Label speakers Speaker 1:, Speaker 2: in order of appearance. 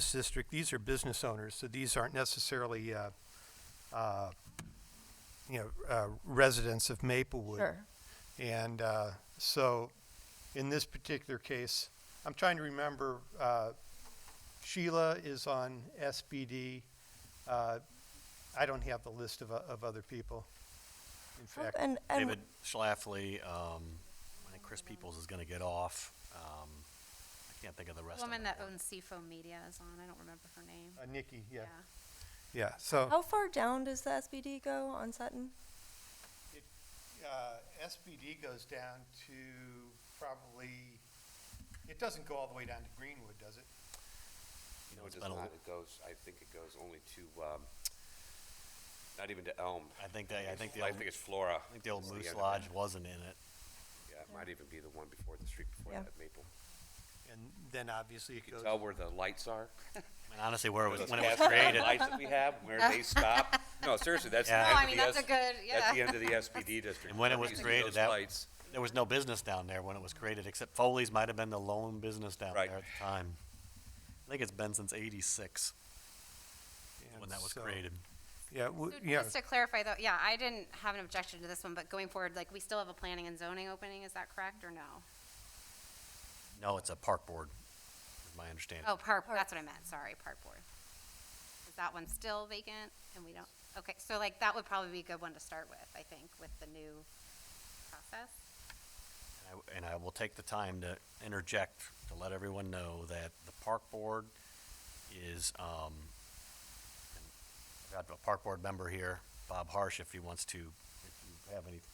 Speaker 1: business district, these are business owners, so these aren't necessarily, uh, uh, you know, uh, residents of Maplewood.
Speaker 2: Sure.
Speaker 1: And uh, so, in this particular case, I'm trying to remember, uh, Sheila is on SBD. Uh, I don't have the list of, o- of other people. In fact,
Speaker 2: And, and
Speaker 3: David Schlafly, um, I think Chris Peoples is gonna get off. Um, I can't think of the rest of
Speaker 4: Woman
Speaker 3: it.
Speaker 4: that owns Seafoam Media is on, I don't remember her name.
Speaker 1: uh, Nikki, yeah,
Speaker 4: Yeah,
Speaker 1: yeah, so.
Speaker 2: how far down does the SBD go on Sutton?
Speaker 1: uh, SBD goes down to probably, it doesn't go all the way down to Greenwood, does it?
Speaker 3: You know,
Speaker 5: No, it
Speaker 3: it's
Speaker 5: does
Speaker 3: been a-
Speaker 5: not. It goes, I think it goes only to, um, not even to Elm.
Speaker 3: I think they, I think the,
Speaker 5: I
Speaker 3: old-
Speaker 5: think it's Flora.
Speaker 3: I think the old
Speaker 5: It's the
Speaker 3: Moose
Speaker 5: end of it.
Speaker 3: Lodge wasn't in it.
Speaker 5: Yeah, it might even be the one before, the street before
Speaker 2: Yeah.
Speaker 5: that, Maple.
Speaker 1: And then obviously it
Speaker 5: You can
Speaker 1: goes.
Speaker 5: tell where the lights are.
Speaker 3: I mean, honestly, where it was,
Speaker 5: Those
Speaker 3: when it was
Speaker 5: gas lamp
Speaker 3: created,
Speaker 5: Lights that we have, where they stop. No, seriously, that's the
Speaker 3: Yeah. No,
Speaker 5: end
Speaker 4: I
Speaker 5: of
Speaker 4: mean,
Speaker 5: the
Speaker 4: that's a
Speaker 5: S-
Speaker 4: good-
Speaker 5: That's the
Speaker 4: yeah.
Speaker 5: end of the SBD district.
Speaker 3: And when it
Speaker 5: Whenever
Speaker 3: was
Speaker 5: you see
Speaker 3: created,
Speaker 5: those
Speaker 3: that-
Speaker 5: lights,
Speaker 3: there was no business down there when it was created, except Foley's might have been the lone business down
Speaker 5: Right.
Speaker 3: there at the time. I think it's been since eighty-six when that was
Speaker 1: so-
Speaker 3: created.
Speaker 1: Yeah, w-
Speaker 4: So
Speaker 1: yeah,
Speaker 4: Just to clarify though, yeah, I didn't have an objection to this one, but going forward, like, we still have a planning and zoning opening, is that correct, or no?
Speaker 3: No, it's a park board, is my understanding.
Speaker 4: Oh, park, that's what I meant, sorry, park board. Is that one still vacant, and we don't, okay, so like, that would probably be a good one to start with, I think, with the new process.
Speaker 3: And I w- And I will take the time to interject to let everyone know that the park board is, um, I've got a park board member here, Bob Harsh, if he wants to, if you have any